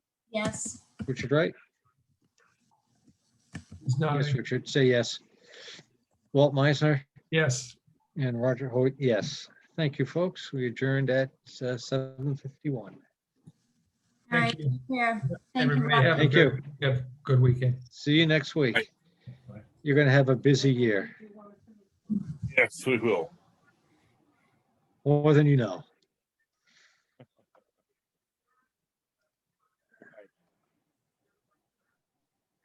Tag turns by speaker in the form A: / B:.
A: Yes.
B: Richard Wright?
C: He's
B: Yes,
C: nodding.
B: Richard, say yes. Walt Meisner
C: Yes.
B: and Roger Hoyt, yes. Thank you, folks. We adjourned at uh, 7:51.
A: All right,
C: Thank you.
A: yeah. Thank you,
C: Everybody
A: Rob.
C: have a
B: Thank
C: good, have a good weekend.
B: See you next week.
C: Bye.
B: You're going to have a busy year,
D: Yes, we will.
B: more than you know.